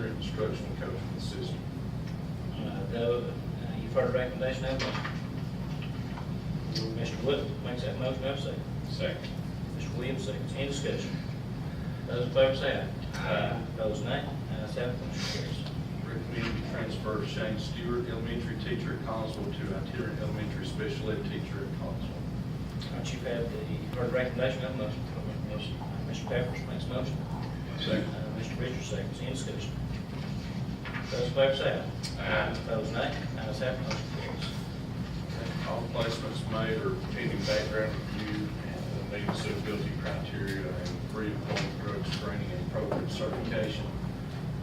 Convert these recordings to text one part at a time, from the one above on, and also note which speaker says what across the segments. Speaker 1: instructional coaching system.
Speaker 2: Uh, though, uh, you've heard the recommendation, have a motion. Mr. Wood makes that motion, have a second.
Speaker 1: Second.
Speaker 2: Mr. Williams seconds, any discussion? Those in favor say aye.
Speaker 1: Aye.
Speaker 2: Those nay, ayes have, it, motion carries.
Speaker 1: Recommend the transfer of Shane Stewart, elementary teacher at Collinsville, to itinerant elementary special ed teacher at Collinsville.
Speaker 2: All right, you've had the, heard the recommendation, have a motion. Mr. Pepperidge makes a motion.
Speaker 1: Second.
Speaker 2: Uh, Mr. Richards seconds, any discussion? Those in favor say aye.
Speaker 1: Aye.
Speaker 2: Those nay, ayes have, it, motion carries.
Speaker 1: All placements made are pending background review and meeting suitability criteria and pre-employment drug screening and program certification.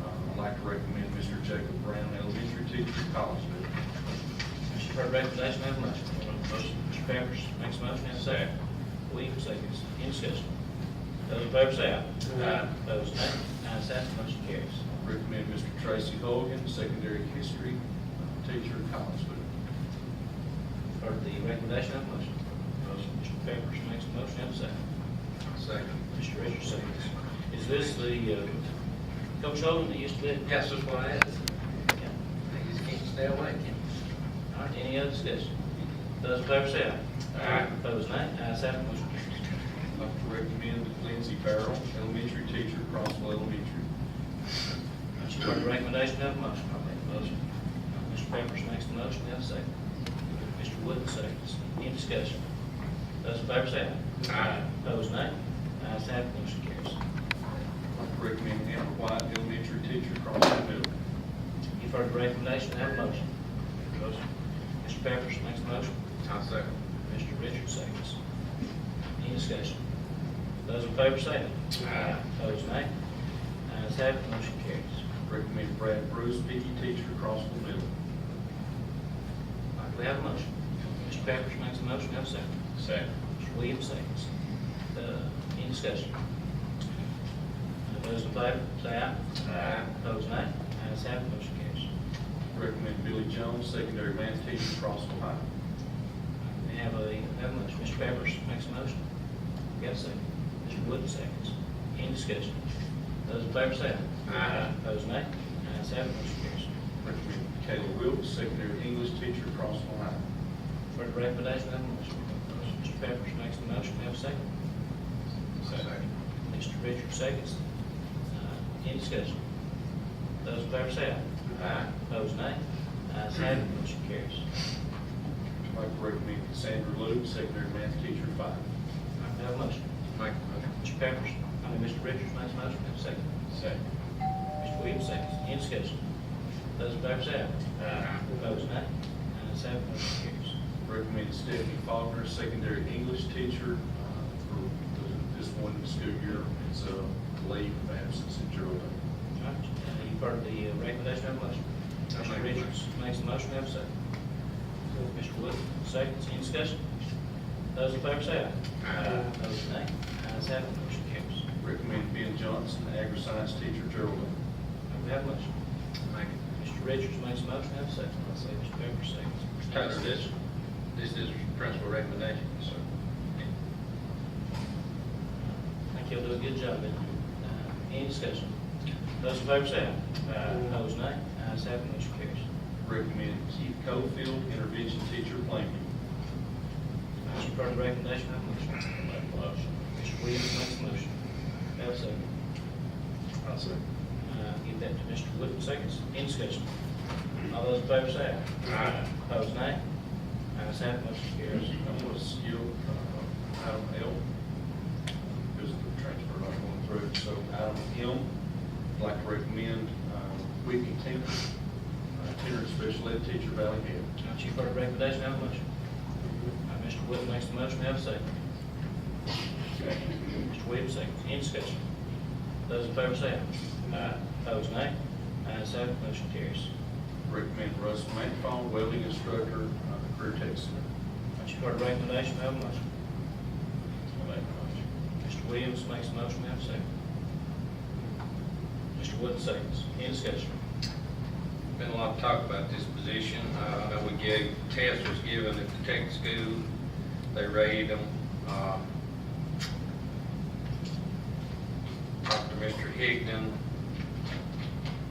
Speaker 1: Uh, I'd like to recommend Mr. Jacob Brown, elementary teacher at Collinsville.
Speaker 2: Mr. Heard recommendation, have a motion. Motion. Mr. Pepperidge makes a motion, have a second. Williams seconds, any discussion? Those in favor say aye. Aye. Those nay, ayes have, it, motion carries.
Speaker 1: Recommend Mr. Tracy Hogan, secondary history uh, teacher at Collinsville.
Speaker 2: Heard the recommendation, have a motion. Motion. Mr. Pepperidge makes a motion, have a second.
Speaker 1: Second.
Speaker 2: Mr. Richards seconds. Is this the, uh, Coach Holden that used to live?
Speaker 3: Yes, that's what I asked. They just can't stay away, can
Speaker 2: All right, any other discussion? Those in favor say aye.
Speaker 3: Aye.
Speaker 2: Those nay, ayes have, it, motion carries.
Speaker 1: I'd like to recommend Lindsay Farrell, elementary teacher, Crossville Elementary.
Speaker 2: You've heard the recommendation, have a motion. I'll make the motion. Mr. Pepperidge makes the motion, have a second. Mr. Wood seconds. Any discussion? Those in favor say aye. Aye. Those nay. Ayes have, it, motion carries.
Speaker 1: I'd like to recommend Amber White, elementary teacher, Crossville Middle.
Speaker 2: You've heard the recommendation, have a motion. Motion. Mr. Pepperidge makes the motion.
Speaker 1: I second.
Speaker 2: Mr. Richards seconds. Any discussion? Those in favor say aye. Aye. Those nay. Ayes have, it, motion carries.
Speaker 1: Recommend Brad Bruce, PE teacher, Crossville Middle.
Speaker 2: All right, we have a motion. Mr. Pepperidge makes a motion, have a second.
Speaker 1: Second.
Speaker 2: Mr. Williams seconds. Uh, Any discussion? Those in favor, say aye.
Speaker 1: Aye.
Speaker 2: Those nay. Ayes have, it, motion carries.
Speaker 1: Recommend Billy Jones, secondary math teacher, Crossville High.
Speaker 2: We have a, have a motion. Mr. Pepperidge makes a motion. We have a second. Mr. Wood seconds. Any discussion? Those in favor, say aye. Aye. Those nay. Ayes have, it, motion carries.
Speaker 1: Recommend Kayla Wilkes, secondary English teacher, Crossville High.
Speaker 2: For the recommendation, have a motion. Mr. Pepperidge makes a motion, have a second.
Speaker 1: Second.
Speaker 2: Mr. Richards seconds. Uh, Any discussion? Those in favor say aye. Aye. Those nay. Ayes have, it, motion carries.
Speaker 1: I'd like to recommend Cassandra Luke, secondary math teacher, Five.
Speaker 2: I have a motion.
Speaker 3: Make
Speaker 2: Mr. Pepperidge, I mean, Mr. Richards makes a motion, have a second.
Speaker 1: Second.
Speaker 2: Mr. Williams seconds. Any discussion? Those in favor say aye. Aye. Those nay. Ayes have, it, motion carries.
Speaker 1: Recommend Stephanie Faulkner, secondary English teacher, uh, for the- this one school year. It's a leave of absence at Geraldine.
Speaker 2: All right, uh, you've heard the uh, recommendation, have a motion.
Speaker 3: I'll
Speaker 2: Mr.
Speaker 3: make a
Speaker 2: Richards makes a motion, have a second. Mr. Wood, seconds, any discussion? Those in favor say aye. Aye. Those nay, ayes have, it, motion carries.
Speaker 1: Recommend Ben Johnson, agri-science teacher, Geraldine.
Speaker 2: We have a motion.
Speaker 3: Make it.
Speaker 2: Mr. Richards makes a motion, have a second. I'll say Mr. Pepper, seconds.
Speaker 3: Tyler, this, this is principal recommendation, so.
Speaker 2: I think he'll do a good job in there. Uh, Any discussion? Those in favor say aye. Aye. Those nay, ayes have, it, motion carries.
Speaker 1: Recommend Keith Cofield, intervention teacher, Plainview.
Speaker 2: Mr. Carter, recommendation, have a motion.
Speaker 1: Make motion.
Speaker 2: Mr. Williams makes a motion. Have a second.
Speaker 1: i second.
Speaker 2: Uh, Give that to Mr. Wood, seconds. Any discussion? All those in favor say aye. Aye. Those nay. Ayes have, it, motion carries.
Speaker 1: I'm going to skip uh, item L, because of the transfer not going through. So item M, I'd like to recommend uh, Whitney Tinker, uh, itinerant special ed teacher, Valley Head.
Speaker 2: Now, Chief, heard the recommendation, have a motion. Uh, Mr. Wood makes the motion, have a second. Mr. Williams, second. Any discussion? Those in favor say aye. Aye. Those nay. Ayes have, it, motion carries.
Speaker 1: Recommend Russ Manfall, welding instructor, uh, career tech center.
Speaker 2: Now, Chief, heard the recommendation, have a motion. Mr. Williams makes the motion, have a second. Mr. Wood, seconds. Any discussion?
Speaker 3: Been a lot of talk about this position. Uh, I know we gave, test was given at the tech school. They rated them. Um, Uh, Talked to Mr. Higdon,